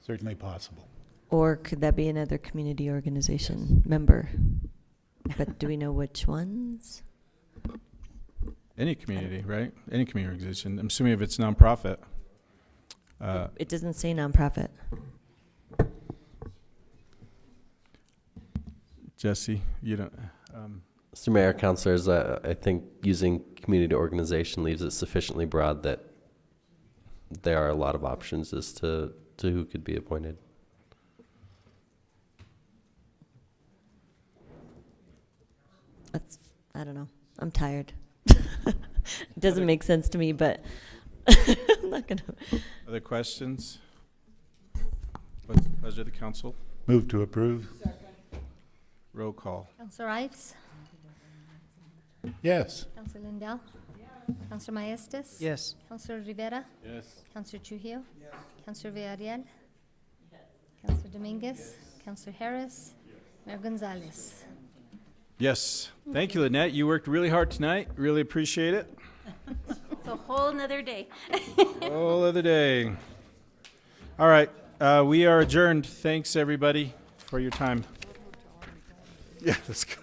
Certainly possible. Or could that be another community organization member? But do we know which ones? Any community, right? Any community organization. I'm assuming if it's nonprofit. Uh, It doesn't say nonprofit. Jesse, you don't. Um, Mr. Mayor, councilors, uh, I think using community organization leaves it sufficiently broad that there are a lot of options as to, to who could be appointed. That's, I don't know. I'm tired. It doesn't make sense to me, but I'm not gonna, other questions? What's the pleasure of the council? Move to approve? Roll call. Counselor Ives? Yes. Counselor Lindell? Counselor Maestas? Yes. Counselor Rivera? Yes. Counselor Trujillo? Counselor Villarreal? Counselor Dominguez? Counselor Harris? Mayor Gonzalez? Yes. Thank you, Lynette. You worked really hard tonight. Really appreciate it. It's a whole nother day. Whole other day. All right. Uh, we are adjourned. Thanks, everybody, for your time. Yeah, let's go.